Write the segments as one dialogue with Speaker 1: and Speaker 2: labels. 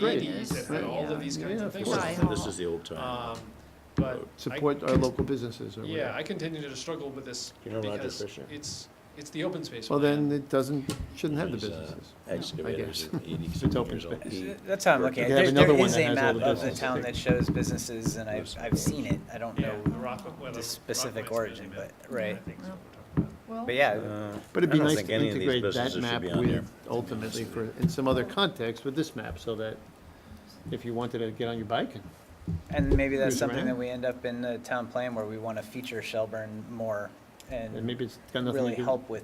Speaker 1: Great.
Speaker 2: eighties and had all of these kinds
Speaker 1: Yeah,
Speaker 2: of
Speaker 1: of
Speaker 2: things.
Speaker 1: course.
Speaker 3: Right.
Speaker 4: And this is the old time.
Speaker 2: Um, but I,
Speaker 1: Support our local businesses or
Speaker 2: yeah,
Speaker 1: whatever.
Speaker 2: I continue to struggle with this
Speaker 4: You know Roger
Speaker 2: because
Speaker 4: Fisher?
Speaker 2: it's, it's the open space.
Speaker 1: Well,
Speaker 2: plan.
Speaker 1: then it doesn't, shouldn't have the
Speaker 4: He's, uh,
Speaker 1: businesses.
Speaker 4: Excavators,
Speaker 1: guess.
Speaker 4: are 87 years old. He-
Speaker 5: That's how I'm looking at
Speaker 1: You
Speaker 5: it.
Speaker 1: have
Speaker 5: There-
Speaker 1: another
Speaker 5: There
Speaker 1: one
Speaker 5: is
Speaker 1: that
Speaker 5: a
Speaker 1: has all
Speaker 5: map
Speaker 1: the
Speaker 5: of the
Speaker 1: businesses.
Speaker 5: town that shows businesses, and I've, I've seen it. I don't
Speaker 2: Yeah,
Speaker 5: know
Speaker 2: the Rockwell, well,
Speaker 5: the
Speaker 2: the
Speaker 5: specific
Speaker 2: Rockaway
Speaker 5: origin,
Speaker 2: Expansion
Speaker 5: but,
Speaker 2: Map.
Speaker 5: right.
Speaker 2: I think is what we're talking
Speaker 3: Well,
Speaker 5: But yeah,
Speaker 4: Uh,
Speaker 1: But it'd be
Speaker 4: I don't
Speaker 1: nice
Speaker 4: think
Speaker 1: to
Speaker 4: any of these
Speaker 1: integrate that
Speaker 4: businesses should
Speaker 1: map
Speaker 4: be on there.
Speaker 1: with, ultimately, for, in some other context, with this map, so that if you wanted to get on your bike and
Speaker 5: and maybe that's
Speaker 1: Cruise
Speaker 5: something that
Speaker 1: around.
Speaker 5: we end up in the town plan where we want to feature Shelburne more
Speaker 1: And
Speaker 5: and
Speaker 1: maybe it's got nothing
Speaker 5: really
Speaker 1: to do,
Speaker 5: help with,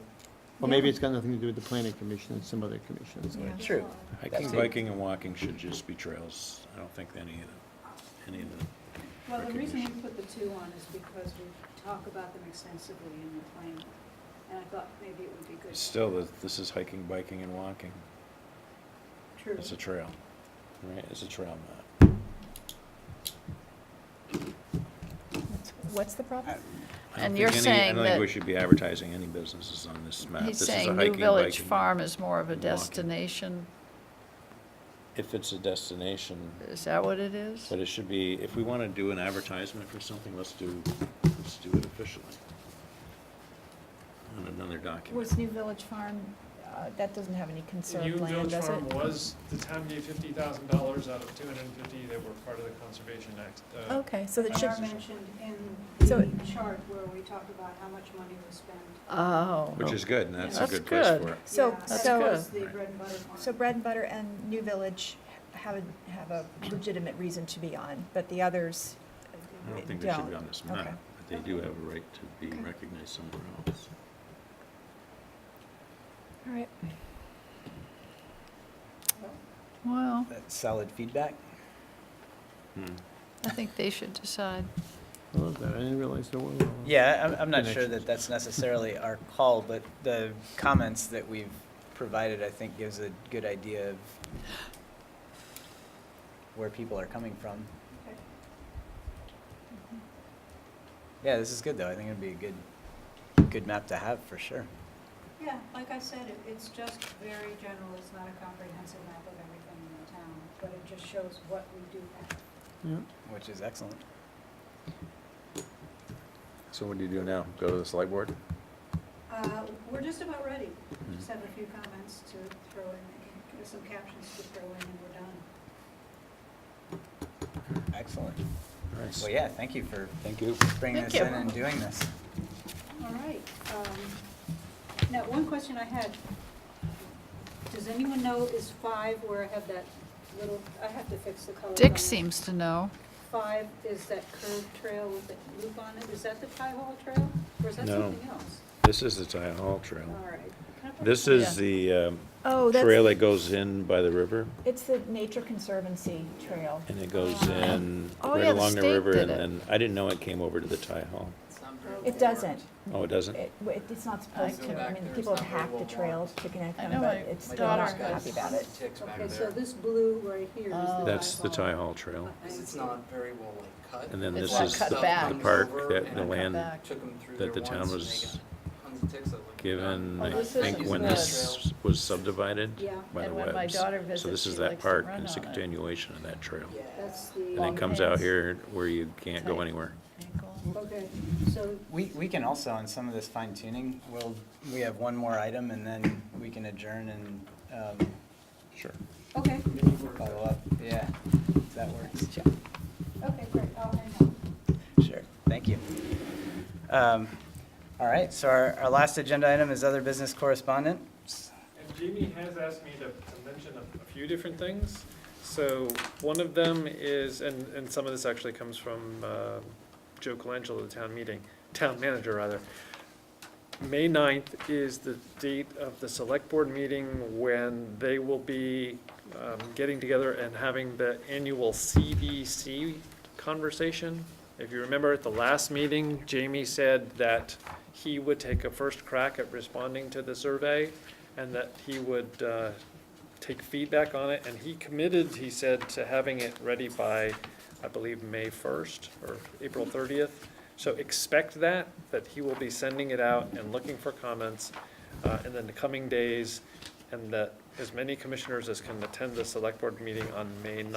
Speaker 1: or maybe it's got nothing to do with the planning commission, it's some other commission. it's like-
Speaker 3: yeah.
Speaker 5: true.
Speaker 4: Hiking,
Speaker 5: That's it.
Speaker 4: biking and walking should just be trails. I don't think any of the, any of the,
Speaker 6: Well, the reason we
Speaker 4: recognition.
Speaker 6: put the two on is because we talk about them extensively in the plan, and I thought maybe it would be good.
Speaker 4: still, th- this is hiking, biking and walking.
Speaker 6: True.
Speaker 4: It's a trail, right? It's a trail map.
Speaker 3: What's the problem?
Speaker 4: I
Speaker 7: And
Speaker 4: don't think
Speaker 7: you're
Speaker 4: any-
Speaker 7: saying
Speaker 4: I don't think
Speaker 7: that-
Speaker 4: we should be advertising any businesses on this map.
Speaker 7: He's
Speaker 4: This is a
Speaker 7: saying New
Speaker 4: hiking,
Speaker 7: Village
Speaker 4: biking.
Speaker 7: Farm is more of a
Speaker 4: and walking.
Speaker 7: destination,
Speaker 4: If it's a destination,
Speaker 7: is that what it is?
Speaker 4: but it should be, if we want to do an advertisement for something, let's do, let's do it officially. On another document.
Speaker 3: Was New Village Farm, uh, that doesn't have any
Speaker 2: about. New
Speaker 3: conserved land,
Speaker 2: Village
Speaker 3: does it?
Speaker 2: Farm was, the town gave fifty thousand dollars out of two hundred and fifty that were part of the Conservation Act. uh,
Speaker 3: Okay, so
Speaker 6: They
Speaker 3: that should,
Speaker 6: are mentioned in
Speaker 3: So-
Speaker 6: the chart where we talk about how much money was spent.
Speaker 7: Oh.
Speaker 4: Which is good, and that's a
Speaker 7: That's
Speaker 4: good place
Speaker 7: good.
Speaker 4: for it.
Speaker 3: so,
Speaker 6: Yeah,
Speaker 7: That's
Speaker 3: so.
Speaker 6: That was the
Speaker 4: good.
Speaker 6: bread and butter one.
Speaker 3: So Bread and Butter and New Village have, a- have a legitimate reason to be on, but the others,
Speaker 4: I don't think they should be on this
Speaker 3: Okay.
Speaker 4: map, but they do have a right to be
Speaker 3: Okay.
Speaker 4: recognized somewhere else.
Speaker 3: all right.
Speaker 7: Well,
Speaker 5: That's solid feedback.
Speaker 4: Hmm.
Speaker 7: I think they should decide.
Speaker 1: I love that, I didn't realize there were. all-
Speaker 5: Yeah, I'm, I'm not sure
Speaker 1: Connections.
Speaker 5: that that's necessarily our call, but the comments that we've provided, I think, gives a good idea of where people are coming from.
Speaker 6: Okay.
Speaker 5: Yeah, this is good, though. I think it'd be a good, good map to have for sure.
Speaker 6: Yeah, like I said, it- it's just very general, it's not a comprehensive map of everything in the town, but it just shows what we do have.
Speaker 1: Yeah.
Speaker 5: Which is excellent.
Speaker 8: So what do you do now? Go to the select board?
Speaker 6: Uh, We're just about ready. Just have a few comments to throw in, some captions to throw in, and we're done.
Speaker 5: Excellent.
Speaker 4: Nice.
Speaker 5: Well, yeah, thank you for
Speaker 4: Thank you.
Speaker 5: bringing
Speaker 7: Thank
Speaker 5: this in
Speaker 7: you.
Speaker 5: and doing this.
Speaker 6: All right. um, Now, one question I had. Does anyone know is five where I have that little, I have to fix the color. on
Speaker 7: Dick
Speaker 6: it.
Speaker 7: seems to know.
Speaker 6: Five is that curved trail with the loop on it. Is that the Pie Hall Trail? Or is that
Speaker 4: No.
Speaker 6: something else?
Speaker 4: This is the Town Hall Trail.
Speaker 6: All right. Can I put-
Speaker 4: This is the um,
Speaker 3: Oh,
Speaker 4: trail
Speaker 3: that's,
Speaker 4: that goes in by the river,
Speaker 3: it's the Nature Conservancy Trail.
Speaker 4: and it goes in
Speaker 7: Oh, yeah,
Speaker 4: right
Speaker 7: the
Speaker 4: along the
Speaker 7: state
Speaker 4: river,
Speaker 7: did
Speaker 4: and
Speaker 7: it.
Speaker 4: then, I didn't know it came over to the Ty Hall.
Speaker 3: It doesn't,
Speaker 4: Oh, it doesn't?
Speaker 3: it, it- it's not supposed
Speaker 7: I
Speaker 3: to, I
Speaker 7: can-
Speaker 3: mean, people have hacked the trails to connect
Speaker 7: I
Speaker 3: them,
Speaker 7: know
Speaker 3: but
Speaker 7: my
Speaker 3: it's, they're
Speaker 7: daughter's
Speaker 3: not
Speaker 7: got
Speaker 3: happy about it.
Speaker 6: Okay, so this blue right here is the.
Speaker 7: Oh.
Speaker 4: That's the Ty
Speaker 6: Pie
Speaker 4: Hall Trail.
Speaker 9: Because it's not very well like cut.
Speaker 4: And then
Speaker 7: It's
Speaker 4: this
Speaker 7: not
Speaker 4: is
Speaker 7: cut
Speaker 4: the
Speaker 7: back.
Speaker 4: the park that,
Speaker 9: And
Speaker 4: the
Speaker 9: cut
Speaker 4: land
Speaker 7: back.
Speaker 9: Took 'em through
Speaker 4: that the
Speaker 9: there
Speaker 4: town
Speaker 9: once and they
Speaker 4: was
Speaker 9: got tons of ticks that looked
Speaker 4: given, I
Speaker 9: bad.
Speaker 7: Oh, this
Speaker 4: think,
Speaker 7: isn't
Speaker 4: when
Speaker 7: good.
Speaker 4: this was subdivided
Speaker 6: Yeah.
Speaker 4: by the
Speaker 7: And when my
Speaker 4: webs.
Speaker 7: daughter
Speaker 4: So
Speaker 7: visits,
Speaker 4: this is
Speaker 7: she
Speaker 4: that
Speaker 7: likes to
Speaker 4: park,
Speaker 7: run
Speaker 4: and it's a
Speaker 7: on it.
Speaker 4: continuation of that trail.
Speaker 9: Yeah.
Speaker 6: That's
Speaker 4: And
Speaker 6: the,
Speaker 4: it comes out
Speaker 7: Longheads.
Speaker 4: here where you can't go
Speaker 7: Tight.
Speaker 4: anywhere.
Speaker 6: okay, so
Speaker 5: We, we can also, on some of this fine tuning, we'll, we have one more item and then we can adjourn and um,
Speaker 4: Sure.
Speaker 6: Okay,
Speaker 5: follow up. Yeah, if that works.
Speaker 6: okay, great, I'll hang up.
Speaker 5: Sure, thank you. Um, All right, so our, our last agenda item is other business correspondence.
Speaker 2: And Jamie has asked me to, to mention a, a few different things. So one of them is, and, and some of this actually comes from, uh, Joe Colangelo, the town meeting, town manager rather. May 9th is the date of the select board meeting when they will be, um, getting together and having the annual CBC conversation. If you remember at the last meeting, Jamie said that he would take a first crack at responding to the survey and that he would uh, take feedback on it, and he committed, he said, to having it ready by, I believe, May 1st or April 30th. So expect that, that he will be sending it out and looking for comments uh, in the coming days, and that as many commissioners as can attend the select board meeting on May 9th.